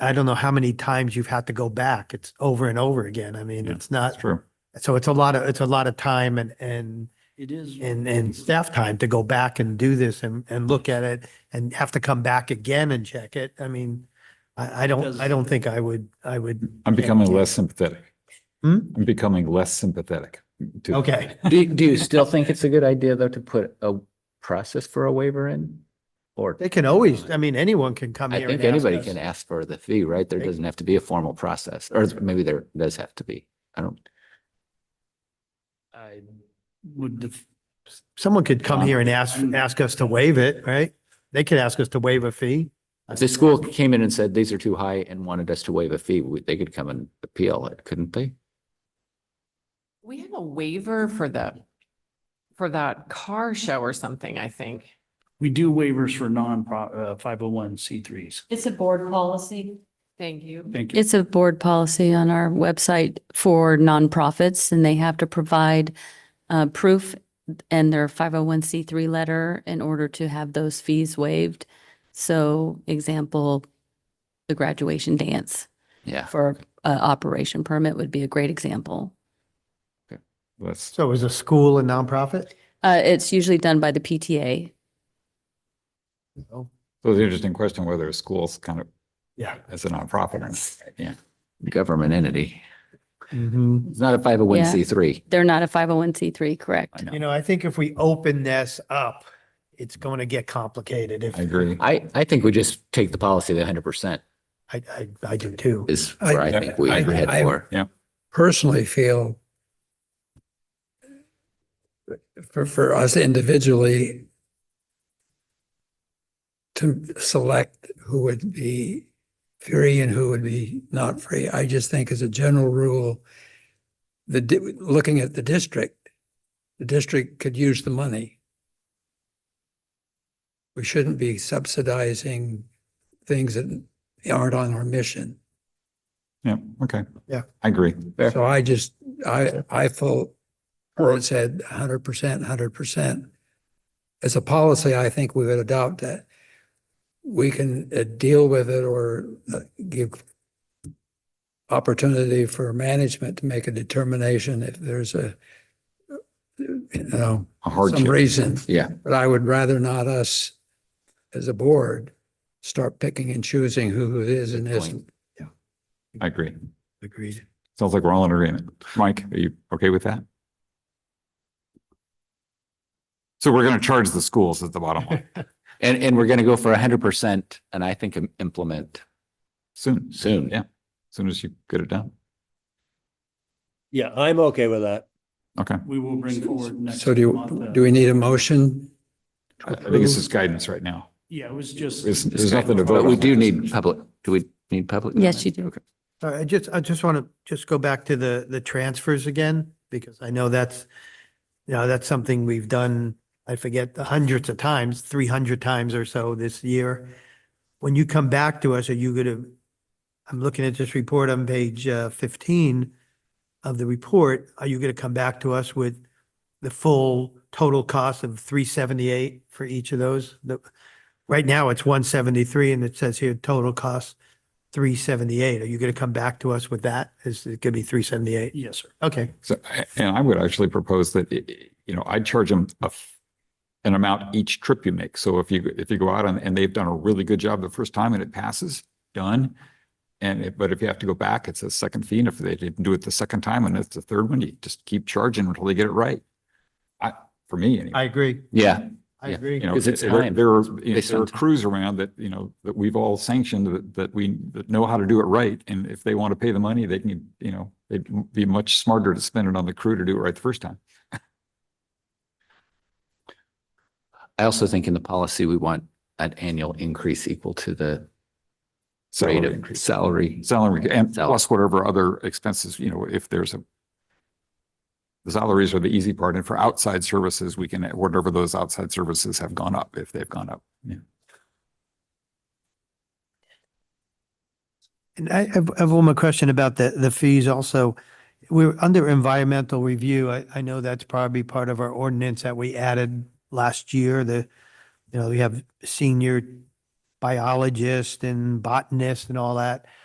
I don't know how many times you've had to go back. It's over and over again. I mean, Yeah, it's not, true. so it's a lot of, it's a lot of time and, and, It is. and, and staff time to go back and do this and, and look at it and have to come back again and check it. I mean, I, I don't, I don't think I would, I would. I'm becoming less sympathetic. Hmm? I'm becoming less sympathetic. to- Okay. Do, do you still think it's a good idea though to put a process for a waiver in? Or, They can always, I mean, anyone can come I here think and ask anybody us. can ask for the fee, right? There doesn't have to be a formal process, or maybe there does have to be. I don't, I would, def- Someone could come Um, here and ask, ask us to waive it, right? They could ask us to waive a fee. if the school came in and said, these are too high and wanted us to waive a fee, we- they could come and appeal it, couldn't they? We have a waiver for the, for that car show or something, I think. we do waivers for non, uh, five oh one C threes. It's a board policy. Thank you. Thank you. It's a board policy on our website for nonprofits and they have to provide uh, proof and their 501c3 letter in order to have those fees waived. So example, the graduation dance Yeah. for uh, operation permit would be a great example. Less, So is a school a nonprofit? Uh, It's usually done by the PTA. so it's an interesting question whether a school's kind of Yeah. as a nonprofit. or not. Government entity. hmm It's not a five oh one C three. They're not a 501c3, correct? I You know. know, I think if we open this up, it's going to get complicated if, I agree. I, I think we just take the policy that hundred percent I, I, I do too. is where I I- think we I- head I- for. personally feel for, for us individually to select who would be free and who would be not free. I just think as a general rule, the, di- looking at the district, the district could use the money. We shouldn't be subsidizing things that aren't on our mission. Yeah, okay. Yeah. I agree. Fair. So I just, I, I felt, where it said hundred percent, hundred percent. As a policy, I think we would adopt that. We can uh, deal with it or uh, give opportunity for management to make a determination if there's a, you know, A some hardship. reason. Yeah. But I would rather not us, as a board, start picking and choosing who it is and Good point. isn't. I agree. Agreed. Sounds like we're all in agreement. Mike, are you okay with that? So we're going to charge the schools at the bottom line And, and we're going to go for hundred percent and I think im- implement soon, as soon. Yeah. soon as you get it done. Yeah, I'm okay with that. Okay. We will bring forward next. So do, you month, do uh, we need a motion? I I think this is guidance right now. Yeah, it was just. There's, there's nothing to vote on. But we do need public, do we need public? Yes, comment? you do. Okay. All right, I just, I just want to just go back to the, the transfers again, because I know that's, you know, that's something we've done, I forget, hundreds of times, three hundred times or so this year. When you come back to us, are you going to, I'm looking at this report on page uh, fifteen of the report, are you going to come back to us with the full total cost of three seventy-eight for each of those? The- Right now, it's one seventy-three, and it says here total cost three seventy-eight. Are you going to come back to us with that? Is it going to be three seventy-eight? Yes, sir. Okay, So, and I would actually propose that, i- i- you know, I'd charge them a, f- an amount each trip you make. So if you, if you go out and, and they've done a really good job the first time and it passes, done. And if, but if you have to go back, it's a second fee. And if they didn't do it the second time and it's the third one, you just keep charging until they get it right. I, for me, I anyway. agree. Yeah, I Yeah, agree. You know, Because it's there- time. There are, you know, They there are spend time. crews around that, you know, that we've all sanctioned that, that we, that know how to do it right. And if they want to pay the money, they can, you know, they'd be much smarter to spend it on the crew to do it right the first time. I also think in the policy, we want an annual increase equal to the rate Salary of increase. salary. Salary and Salary. plus whatever other expenses, you know, if there's a. The salaries are the easy part. And for outside services, we can, whatever those outside services have gone up, if they've gone up. Yeah. And I have, I have one more question about the, the fees also. We're under environmental review. I, I know that's probably part of our ordinance that we added last year. The, you know, we have senior biologist and botanist and all that.